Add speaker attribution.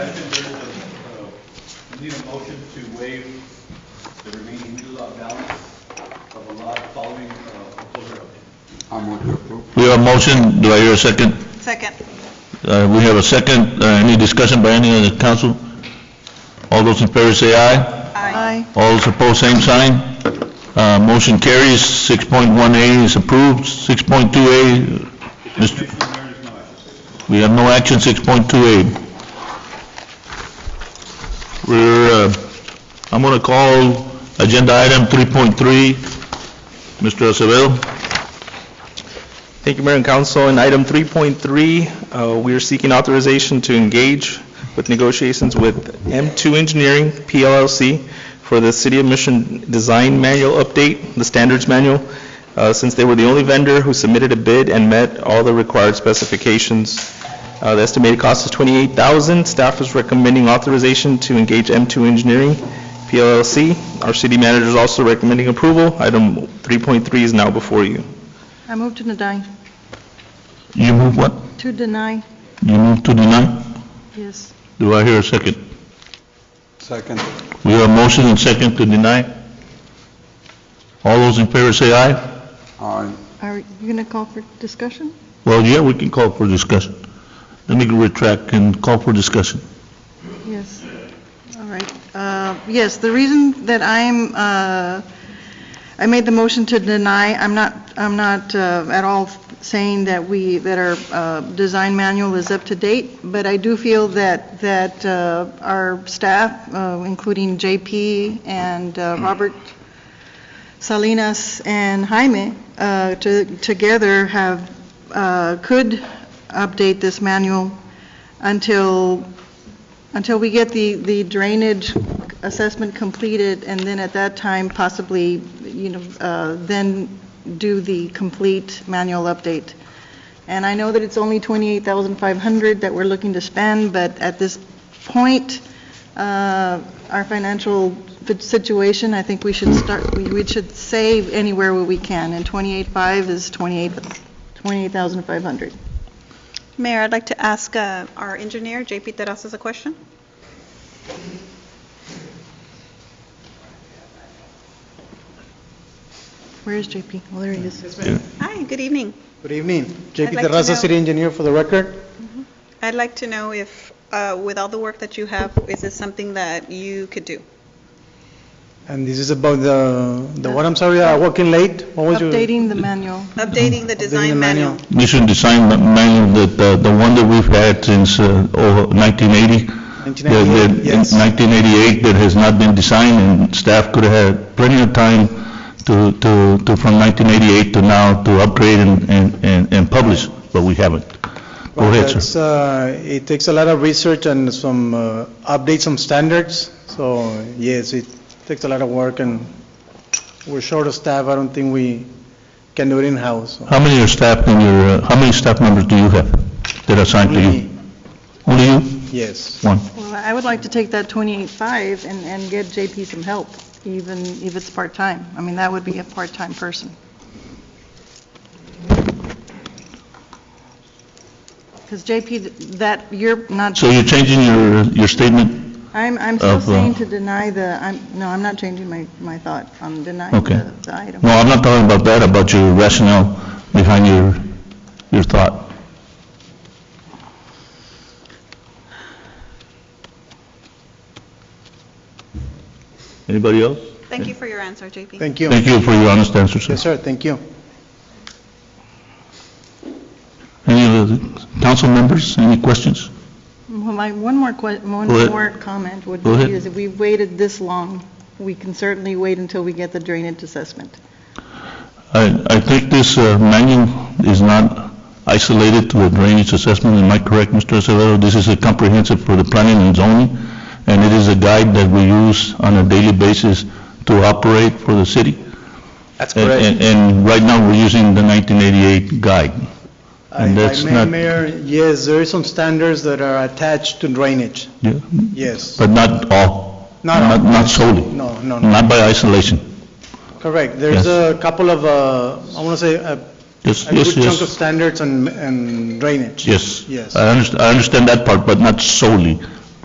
Speaker 1: Second, there is a, uh, need a motion to waive the remaining new lot balance of a lot following uh, foreclosure update.
Speaker 2: I move to approve.
Speaker 3: We have a motion, do I hear a second?
Speaker 4: Second.
Speaker 3: Uh, We have a second, Uh, any discussion by any of the council? All those in favor say aye.
Speaker 4: Aye.
Speaker 3: All those opposed, same sign. Uh, Motion carries, 6.1A is approved, 6.2A, Mr.
Speaker 1: Commissioner, there is no action.
Speaker 3: we have no action, 6.2A. We're, uh, I'm going to call agenda item 3.3, Mr. Acevedo.
Speaker 5: Thank you, Mayor and Council. In item 3.3, uh, we are seeking authorization to engage with negotiations with M2 Engineering, PLLC, for the City of Mission Design Manual Update, the Standards Manual, uh, since they were the only vendor who submitted a bid and met all the required specifications. Uh, The estimated cost is $28,000. Staff is recommending authorization to engage M2 Engineering, PLLC. Our city manager is also recommending approval. Item 3.3 is now before you.
Speaker 4: I move to deny.
Speaker 3: You move what?
Speaker 4: To deny,
Speaker 3: You move to deny?
Speaker 4: yes.
Speaker 3: Do I hear a second?
Speaker 2: Second.
Speaker 3: We have a motion and second to deny. All those in favor say aye.
Speaker 2: Aye.
Speaker 4: Are you going to call for discussion?
Speaker 3: Well, yeah, we can call for discussion. Let me retract and call for discussion.
Speaker 4: Yes. All right. Uh, Yes, the reason that I'm, uh, I made the motion to deny, I'm not, I'm not uh, at all saying that we, that our uh, design manual is up to date, but I do feel that, that uh, our staff, uh, including JP and uh, Robert Salinas and Jaime, uh, to- together have, uh, could update this manual until until we get the, the drainage assessment completed, and then at that time possibly, you know, uh, then do the complete manual update. And I know that it's only 28,500 that we're looking to spend, but at this point, uh, our financial fit- situation, I think we should start, we we should save anywhere where we can, and 28.5 is 28 28,500.
Speaker 6: Mayor, I'd like to ask uh, our engineer, JP Terrazas, a question.
Speaker 4: Where is JP? Well, there he is.
Speaker 6: Hi, good evening.
Speaker 7: Good evening.
Speaker 6: I'd
Speaker 7: JP
Speaker 6: like to know-
Speaker 7: Terraza, city engineer for the record.
Speaker 6: I'd like to know if, uh, with all the work that you have, is this something that you could do?
Speaker 7: And this is about the, the what, I'm sorry, I walk in late. What was your?
Speaker 4: Updating the manual.
Speaker 6: Updating the design manual?
Speaker 3: Mission design manual, that, uh, the one that we've had since uh, over 1980. that- that
Speaker 7: 1998, yes.
Speaker 3: in 1988, that has not been designed, and staff could have had plenty of time to, to, to from 1988 to now, to upgrade and, and- and, and publish, but we haven't. Go
Speaker 7: Well,
Speaker 3: ahead, sir.
Speaker 7: that's, uh, It takes a lot of research and some uh, updates on standards. So yes, it takes a lot of work and we're short of staff. I don't think we can do it in-house. so.
Speaker 3: How many are staff in your, uh, how many staff members do you have that are assigned to you? Only you?
Speaker 7: Yes.
Speaker 3: One.
Speaker 4: Well, I would like to take that 28.5 and, and get JP some help, even if it's part-time. I mean, that would be a part-time person. Because JP, that, you're not,
Speaker 3: So you're changing your, your statement?
Speaker 4: I'm, I'm still
Speaker 3: Of, uh,
Speaker 4: saying to deny the, I'm, no, I'm not changing my, my thought on denying
Speaker 3: Okay.
Speaker 4: the the item.
Speaker 3: No, I'm not talking about that, about your rationale behind your, your thought. Anybody else?
Speaker 6: Thank you for your answer, JP.
Speaker 7: Thank you.
Speaker 3: Thank you for your honest answer, sir.
Speaker 7: Yes, sir, thank you.
Speaker 3: Any other council members, any questions?
Speaker 4: Well, My, one more que, one
Speaker 3: Go ahead.
Speaker 4: more comment would
Speaker 3: Go ahead.
Speaker 4: be is if we waited this long, we can certainly wait until we get the drainage assessment.
Speaker 3: I, I think this uh, manual is not isolated to a drainage assessment, am I correct, Mr. Acevedo? This is a comprehensive for the planning and zoning, and it is a guide that we use on a daily basis to operate for the city.
Speaker 5: That's
Speaker 3: And- And, and right now, we're using the 1988 guide. And that's
Speaker 7: If I may,
Speaker 3: not-
Speaker 7: Mayor, yes, there are some standards that are attached to drainage.
Speaker 3: Yeah.
Speaker 7: Yes.
Speaker 3: But not all.
Speaker 7: Not all.
Speaker 3: Not solely.
Speaker 7: No, no, no.
Speaker 3: Not by isolation.
Speaker 7: Correct. There's
Speaker 3: Yes.
Speaker 7: a couple of, uh, I want to say, a
Speaker 3: Yes,
Speaker 7: a good
Speaker 3: yes,
Speaker 7: chunk of
Speaker 3: yes.
Speaker 7: standards and- and drainage.
Speaker 3: Yes.
Speaker 7: Yes.
Speaker 3: I understand, I understand that part, but not solely.